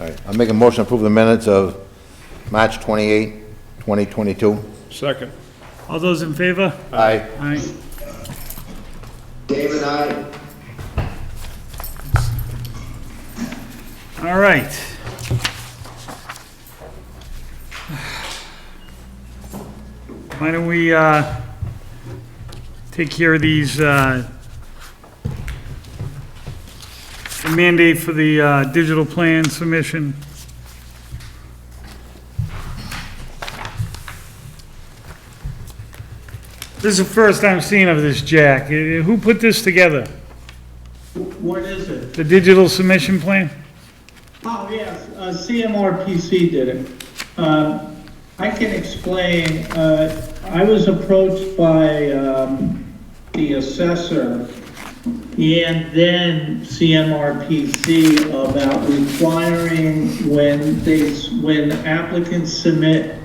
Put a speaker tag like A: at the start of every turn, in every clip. A: All right, I'll make a motion to approve the minutes of March 28, 2022.
B: Second.
C: All those in favor?
A: Aye.
C: Aye.
D: David, aye.
C: All right. Why don't we uh, take care of these, uh, the mandate for the uh, digital plan submission? This is the first I'm seeing of this, Jack. Eh, Who put this together?
E: What is it?
C: The digital submission plan?
E: Oh, yes, uh, CMRPC did it. Um, I can explain, uh, I was approached by um, the assessor and then CMRPC about requiring when they, s- when applicants submit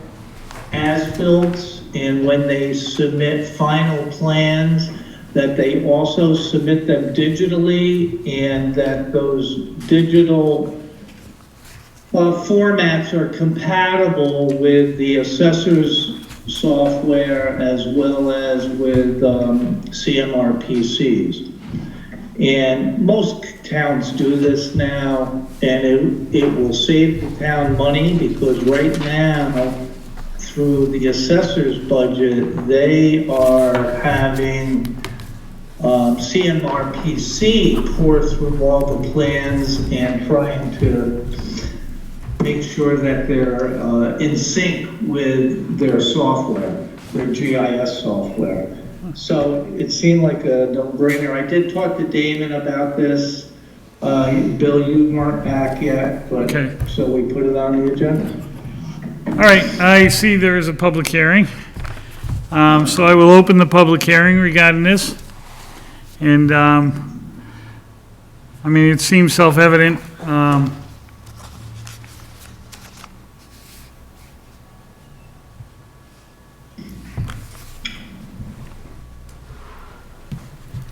E: as-bills and when they submit final plans, that they also submit them digitally and that those digital uh, formats are compatible with the assessor's software as well as with um, CMRPCs. And most towns do this now, and it, it will save the town money because right now, through the assessor's budget, they are having um, CMRPC pour through all the plans and trying to make sure that they're uh, in sync with their software, their GIS software. So it seemed like a no-brainer. I did talk to Damon about this. Uh, Bill, you weren't back yet, but,
C: Okay.
E: so we put it on the agenda.
C: All right, I see there is a public hearing. Um, So I will open the public hearing regarding this. And, um, I mean, it seems self-evident. um,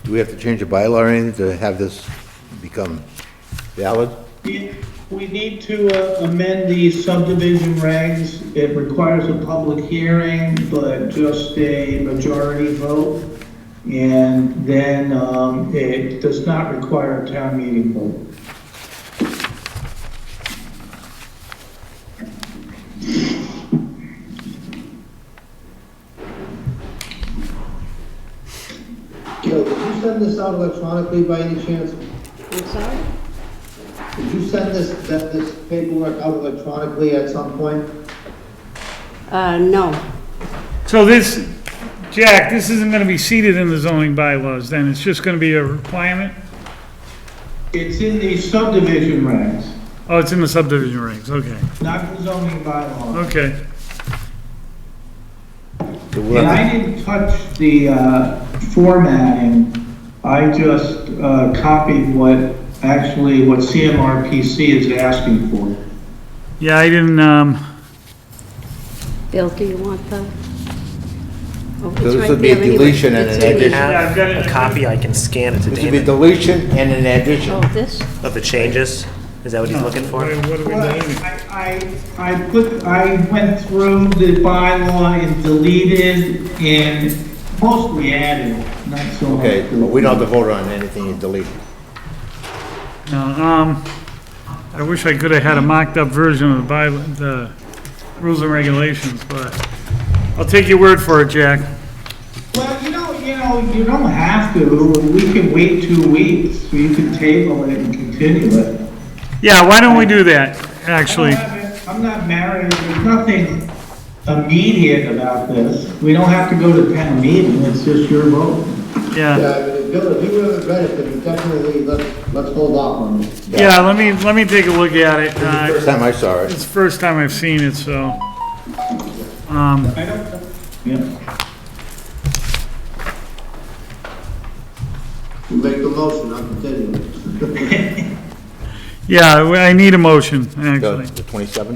A: Do we have to change the bylaw or anything to have this become valid?
E: We we need to uh, amend the subdivision regs. It requires a public hearing, but just a majority vote. And then um, it does not require a town meeting vote.
D: Joe, did you send this out electronically by any chance?
F: I'm sorry?
D: Did you send this, that, this paperwork out electronically at some point?
F: Uh, no.
C: So this, Jack, this isn't going to be seated in the zoning bylaws, then? It's just going to be a requirement?
E: It's in the subdivision regs,
C: Oh, it's in the subdivision regs, okay,
E: not the zoning bylaw.
C: okay.
A: So we'll
E: And
A: have
E: I didn't touch the uh, formatting. I just uh, copied what, actually, what CMRPC is asking for.
C: Yeah, I didn't, um,
F: Bill, do you want the? Oh, it's
A: So this
F: right
A: would be a
F: there anyway.
A: deletion and
F: It's
A: an
F: in the-
G: We
A: addition.
C: Yeah, I've
G: have
C: got it.
G: a copy, I can scan it to
A: This would be
G: David
A: deletion and an addition.
F: Oh, this?
G: of the changes. Is that what he's looking
C: what
G: for?
C: what are we doing?
E: I, I I put, I went through the bylaw and deleted and mostly added, not so much.
A: Okay, but we don't have to vote on anything you delete.
C: No, um, I wish I could have had a mocked-up version of the by, the rules and regulations, but I'll take your word for it, Jack.
E: Well, you know, you know, you don't have to, we can wait two weeks, you can table it and continue it.
C: Yeah, why don't we do that, actually?
E: I don't have it- I'm not married, there's nothing immediate about this, we don't have to go to town meeting, it's just your vote.
C: Yeah,
D: Yeah, I mean, Bill, if you haven't read it, then definitely let's, let's hold off on it.
C: yeah, let me, let me take a look at it. Uh,
A: First time I saw it.
C: It's the first time I've seen it, so,
E: I don't, yeah.
D: You make the motion, I'm continuing.
C: yeah, I I need a motion,
A: The
C: actually.
A: the 27th? Or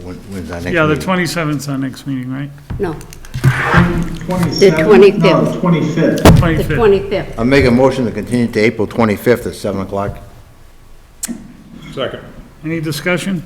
A: when- When's our next meeting?
C: Yeah, the 27th's our next meeting, right?
F: No,
E: Twenty-seventh? No,
F: 25th.
E: twenty-fifth.
F: the
C: 25th.
F: 25th.
A: I'll make a motion to continue to April 25th at 7 o'clock.
B: Second.
C: Any discussion?